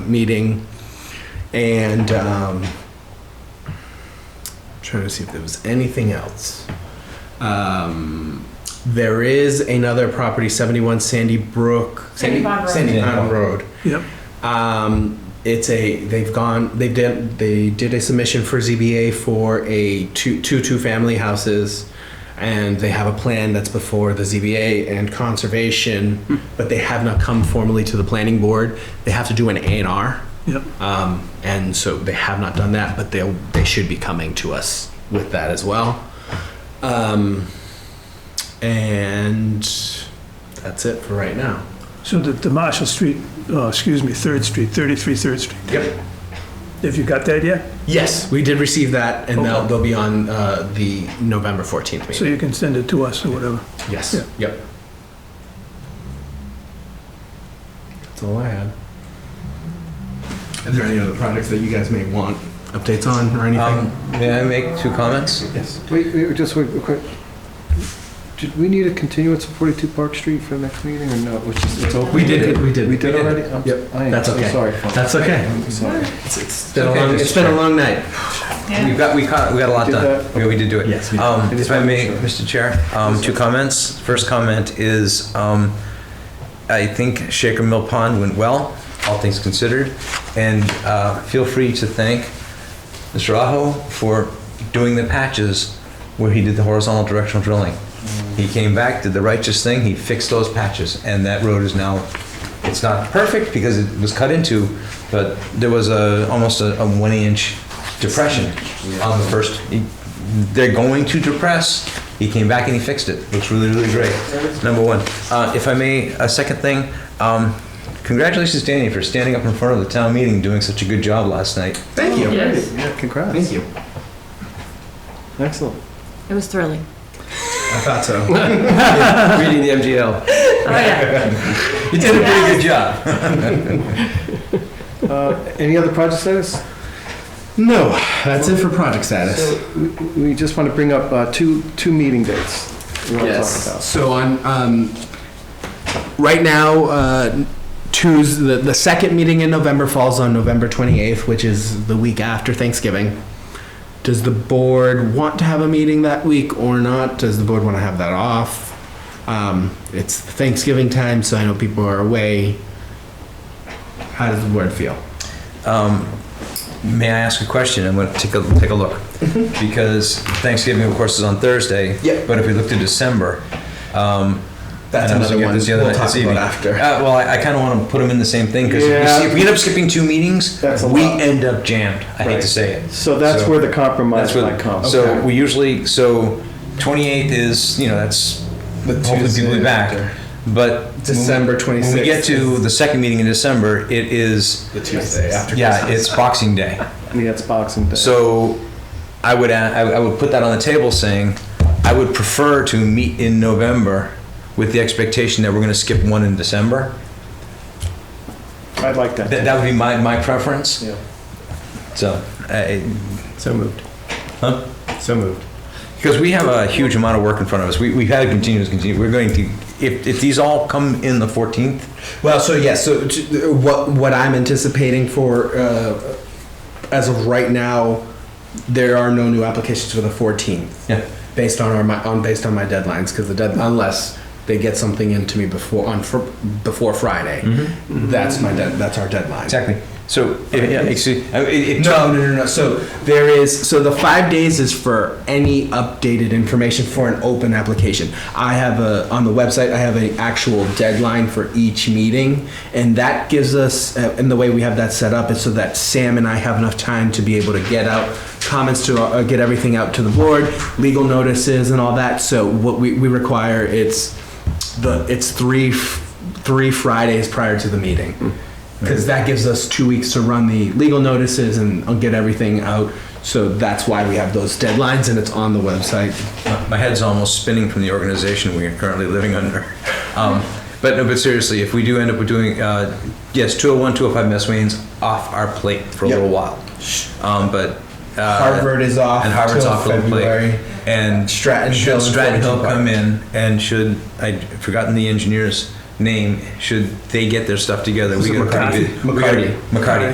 meeting, and um, trying to see if there was anything else. Um, there is another property, 71 Sandy Brook, Sandy Pond Road. Sandy Pond Road. Yep. Um, it's a they've gone they did they did a submission for ZBA for a two two two family houses, and they have a plan that's before the ZBA and conservation, but they have not come formally to the planning board. They have to do an A and R. Yep. Um, and so they have not done that, but they they should be coming to us with that as well. Um, and that's it for right now. So the, the Marshall Street, uh, excuse me, Third Street, 33 Third Street. Yep. Have you got that yet? Yes, we did receive that, and they'll, Okay. they'll be on uh, the November 14th So meeting. you can send it to us or whatever. Yes, yeah. yep. That's all I had. Is there any other projects that you guys may want updates on or anything? Um, may I make two comments? Yes. Wait, wait, just wait, real quick. Did we need a continuance of 42 Park Street for the next meeting or no? Which is, it's open? We did it, we did. We did already? I'm- Yep, I am that's so okay. Sorry. Paul. That's okay. I'm sorry. It's- It's been a okay, long, just it's been a check. long night. We got, we caught, we got a lot Did done. that- Yeah, we did do it. Yes, we did. Um, Just if I wanted to may, make Mr. Chair, um, two comments. First comment is, um, I think Shaker Mill Pond went well, all things considered. And, uh, feel free to thank Mr. Aho for doing the patches where he did the horizontal directional drilling. He came back, did the righteous thing, he fixed those patches, and that road is now, it's not perfect because it was cut into, but there was a, almost a, a one inch depression on the first, he- they're going to depress, he came back and he fixed it, looks really, really great, number one. Uh, if I may, a second thing, um, congratulations Danny for standing up in front of the town meeting, and doing such a good job last night. Thank you. Yes, Yeah, congrats. Thank you. Excellent. it was thrilling. I thought so. Reading the MGL. Oh, yeah. You did a pretty good job. Uh, Any other project status? No, that's it for project status. So we- We just want to bring up uh, two, two meeting dates. we wanna talk about. So on, um, right now, uh, Tuesday, the, the second meeting in November falls on November 28th, which is the week after Thanksgiving. Does the board want to have a meeting that week or not? Does the board want to have that off? Um, it's Thanksgiving time, so I know people are away. How does the board feel? Um, May I ask a question? I'm going to take a, take a look. Because Thanksgiving, of course, is on Thursday. Yep. But if we look to December, um. That's and I was another looking at one this the other we'll night, talk this about evening. after. Uh, well, I, I kind of want to put them in the same thing because Yeah. if we end up skipping two meetings, That's a we lot. end up jammed. I hate Right. to say it. So that's So- where the compromise That's might what, come. so we usually, so 28th is, you know, that's, hopefully people will be back. But. when- December 26th. When we get to the second meeting in December, it is, The Tuesday after yeah, it's Boxing Day. Yeah, it's Boxing Day. So I would, a- I I would put that on the table saying, I would prefer to meet in November with the expectation that we're gonna skip one in December. I'd like That, that. that would be my, my preference, Yeah. so. So moved. Huh? So moved. Because we have a huge amount of work in front of us. We, we've had continuous, continue, we're going to, if, if these all come in the 14th, Well, so yes, so t- what what I'm anticipating for uh, as of right now, there are no new applications for the 14th. Yeah. Based on our my on based on my deadlines, because the dead unless they get something into me before on fr- before Friday, that's my dead that's our deadline. exactly. So, if- yeah, excuse, uh, it, it No, no, no, no. So there is, so the five days is for any updated information for an open application. I have a, on the website, I have an actual deadline for each meeting. And that gives us, uh, and the way we have that set up is so that Sam and I have enough time to be able to get out comments to, uh, get everything out to the board, legal notices and all that. So what we, we require, it's the, it's three, f- three Fridays prior to the meeting. Because that gives us two weeks to run the legal notices and I'll get everything out. So that's why we have those deadlines and it's on the website. My head's almost spinning from the organization we are currently living under. Um, But no, but seriously, if we do end up with doing, uh, yes, 201, 205 Mass Wayne's off our plate for a Yep. little while. Um, But. uh, Harvard is off And Harvard's till off the plate. February. And Stratton should Hill and Stratton Hill Flemington come Park. in and should, I'd forgotten the engineers, name should they get their stuff together. This We is got a pretty McCarthy. good- we got a- McCarthy. McCarthy.